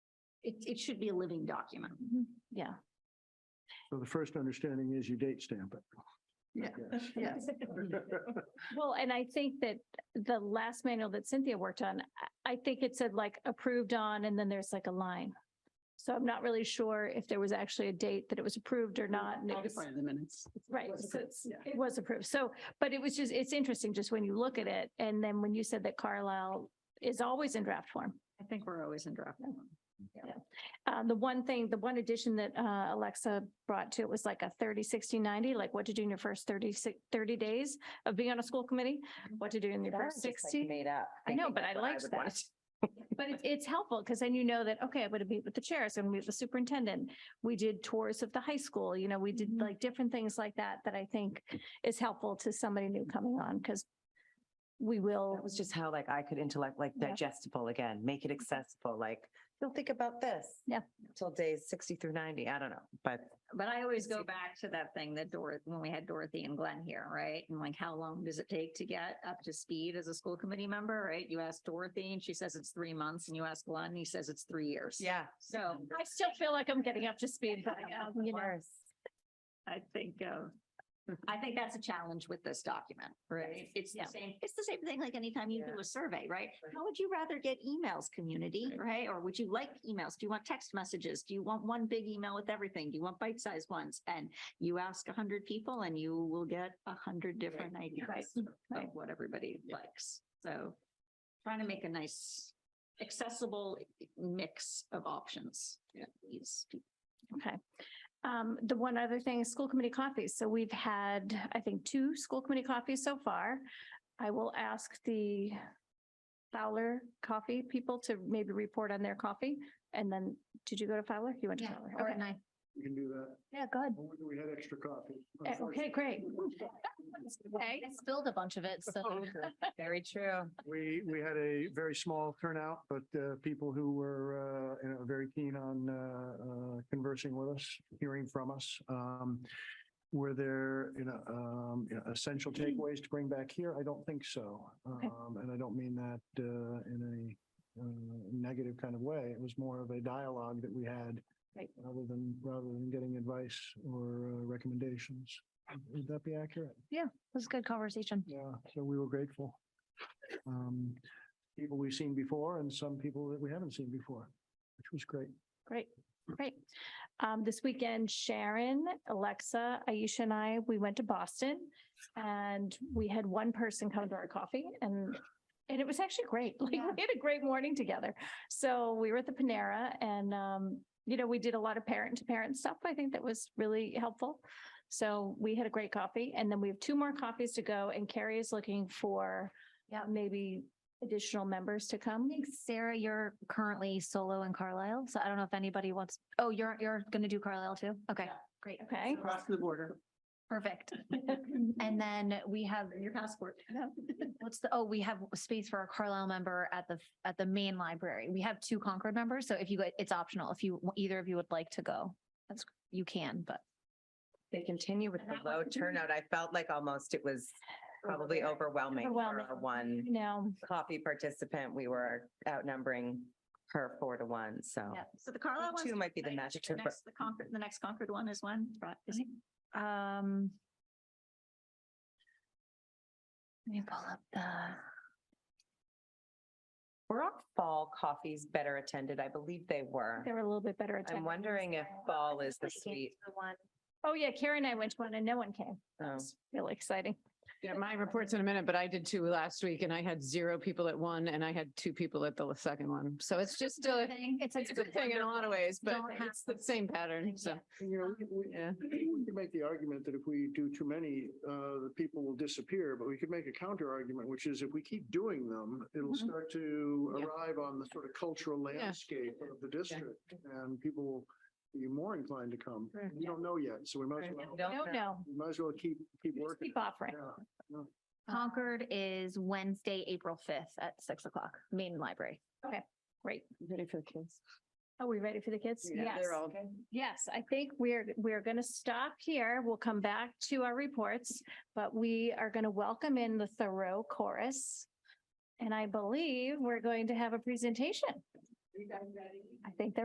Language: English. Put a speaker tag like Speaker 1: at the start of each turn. Speaker 1: it, it should be a living document. Yeah.
Speaker 2: So the first understanding is you date stamp it. I
Speaker 1: Yeah.
Speaker 2: guess.
Speaker 1: Yes.
Speaker 3: Well, and I think that the last manual that Cynthia worked on, I- I think it said like approved on, and then there's like a line. So I'm not really sure if there was actually a date that it was approved or not. and it was-
Speaker 4: Part of the minutes.
Speaker 3: Right,
Speaker 4: was
Speaker 3: so
Speaker 4: approved,
Speaker 3: it's,
Speaker 4: yeah.
Speaker 3: it was approved. So, but it was just, it's interesting just when you look at it. And then when you said that Carlisle is always in draft form.
Speaker 1: I think we're always in draft. form.
Speaker 3: Uh, the one thing, the one addition that, uh, Alexa brought to it was like a 30, 60, 90, like what to do in your first 30 si- 30 days of being on a school committee, what to do in your
Speaker 5: Mm-hmm. That
Speaker 3: first
Speaker 5: was just, like,
Speaker 3: sixty.
Speaker 5: Made up.
Speaker 3: I know,
Speaker 5: think
Speaker 3: but
Speaker 5: that's
Speaker 3: I
Speaker 5: what
Speaker 3: liked
Speaker 5: would want.
Speaker 3: that. But it's, it's helpful because then you know that, okay, I'm going to meet with the chairs, I'm going to meet with the superintendent. We did tours of the high school, you know, we did like different things like that, that I think is helpful to somebody new coming on because we will,
Speaker 5: That was just how like I could intellect, like
Speaker 3: Yeah. Mm-hmm.
Speaker 5: digestible again, make it accessible, like, don't think about this.
Speaker 3: Yeah.
Speaker 5: Till days sixty through ninety, I don't know, but
Speaker 1: But I always go back to that thing that Dor, when we had Dorothy and Glenn here, right? And like, how long does it take to get up to speed as a school committee member, right? You ask Dorothy and she says it's three months and you ask Glenn, and he says it's three years.
Speaker 5: yeah.
Speaker 1: So
Speaker 3: I still feel like I'm getting up to speed, but, um, you know.
Speaker 1: I think, uh, I think that's a challenge with this document, right? It's the
Speaker 3: Yeah.
Speaker 1: same, it's the same thing like anytime you do
Speaker 5: Yeah.
Speaker 1: a survey, right?
Speaker 5: Right.
Speaker 1: How would you rather get emails, community, right? Or would you like emails? Do you want text messages? Do you want one big email with everything? Do you want bite-sized ones? And you ask a hundred people and you will get a hundred different
Speaker 3: Right.
Speaker 1: ideas of
Speaker 3: Right.
Speaker 1: what everybody likes. So trying to make a nice accessible mix of options. Yeah. These people.
Speaker 3: Okay. Um, the one other thing is school committee coffees. So we've had, I think, two school committee coffees so far. I will ask the Fowler Coffee people to maybe report on their coffee. And then, did you go to Fowler? You went to Fowler? Okay.
Speaker 1: I.
Speaker 2: You can do that.
Speaker 3: Yeah, good.
Speaker 2: We- We had extra coffee.
Speaker 3: Eh, Okay, great. Okay.
Speaker 1: spilled a bunch of it, so.
Speaker 5: Very true.
Speaker 2: We, we had a very small turnout, but uh, people who were, uh, you know, very keen on uh, uh, conversing with us, hearing from us. Um, Were there, you know, um, you know, essential takeaways to bring back here? I don't think so. Um, And I don't mean that uh, in a uh, negative kind of way. It was more of a dialogue that we had
Speaker 3: Right.
Speaker 2: rather than, rather than getting advice or uh, recommendations. Would that be accurate?
Speaker 3: was a good conversation.
Speaker 2: Yeah, so we were grateful. Um, People we've seen before and some people that we haven't seen before, which was great.
Speaker 3: Great, great. Um, this weekend, Sharon, Alexa, Aisha and I, we went to Boston and we had one person come to our coffee and and it was actually great. Like we
Speaker 1: Yeah.
Speaker 3: had a great morning together. So we were at the Panera and um, you know, we did a lot of parent to parent stuff. I think that was really helpful. So we had a great coffee and then we have two more coffees to go and Carrie is looking for yeah, maybe additional members to come.
Speaker 6: think Sarah, you're currently solo in Carlisle, so I don't know if anybody wants, oh, you're, you're gonna do Carlisle too? Okay, great,
Speaker 3: Okay.
Speaker 4: Across the border.
Speaker 6: perfect. And then we have,
Speaker 1: Your passport.
Speaker 6: what's the, oh, we have space for a Carlisle member at the, at the main library. We have two Concord members, so if you, go- it's optional, if you, either of you would like to go, that's, you can, but.
Speaker 5: They continue with the low turnout. I felt like almost it was probably overwhelming for
Speaker 3: Overwhelming.
Speaker 5: our one
Speaker 3: Now,
Speaker 5: coffee participant. We were outnumbering her four to one, so.
Speaker 6: Yeah.
Speaker 1: So the Carlisle one's
Speaker 5: Two might be the
Speaker 1: tonight.
Speaker 5: magic.
Speaker 1: The
Speaker 5: number.
Speaker 1: next- The Concord, the next Concord one is when? Right, is it?
Speaker 6: Um. Let me pull up the.
Speaker 5: Were our fall coffees better attended? I believe they were.
Speaker 3: they were a little bit better attended.
Speaker 5: I'm wondering if fall is the sweet.
Speaker 6: The one.
Speaker 3: Oh, yeah, Karen and I went to one and no one came.
Speaker 5: oh.
Speaker 3: It's really exciting.
Speaker 4: Yeah, my report's in a minute, but I did two last week and I had zero people at one and I had two people at the second one. So it's just a,
Speaker 6: It's a
Speaker 4: it's a good thing in a lot of ways, but
Speaker 6: Don't have-
Speaker 4: it's the same pattern. So,
Speaker 2: You know, we- we,
Speaker 4: yeah.
Speaker 2: we could make the argument that if we do too many, uh, the people will disappear, but we could make a counter argument, which is if we keep doing them, it'll
Speaker 4: Mhm.
Speaker 2: start to
Speaker 4: Yeah.
Speaker 2: arrive on the sort of cultural landscape of the district and people will be more inclined to come.
Speaker 5: Right.
Speaker 2: We don't know yet, so we might as well,
Speaker 5: Don't
Speaker 3: No,
Speaker 5: know.
Speaker 3: no,
Speaker 2: we might as well keep, keep
Speaker 3: just
Speaker 2: working.
Speaker 3: keep offering.
Speaker 2: Yeah.
Speaker 6: Concord is Wednesday, April fifth at six o'clock, main library.
Speaker 3: Great.
Speaker 4: Ready for the kids?
Speaker 3: Are we ready for the kids? Yes.
Speaker 4: They're all
Speaker 3: Yes, I think we're, we're going to stop here. We'll come back to our reports, but we are going to welcome in the Thoreau chorus. And I believe we're going to have a presentation. I think they're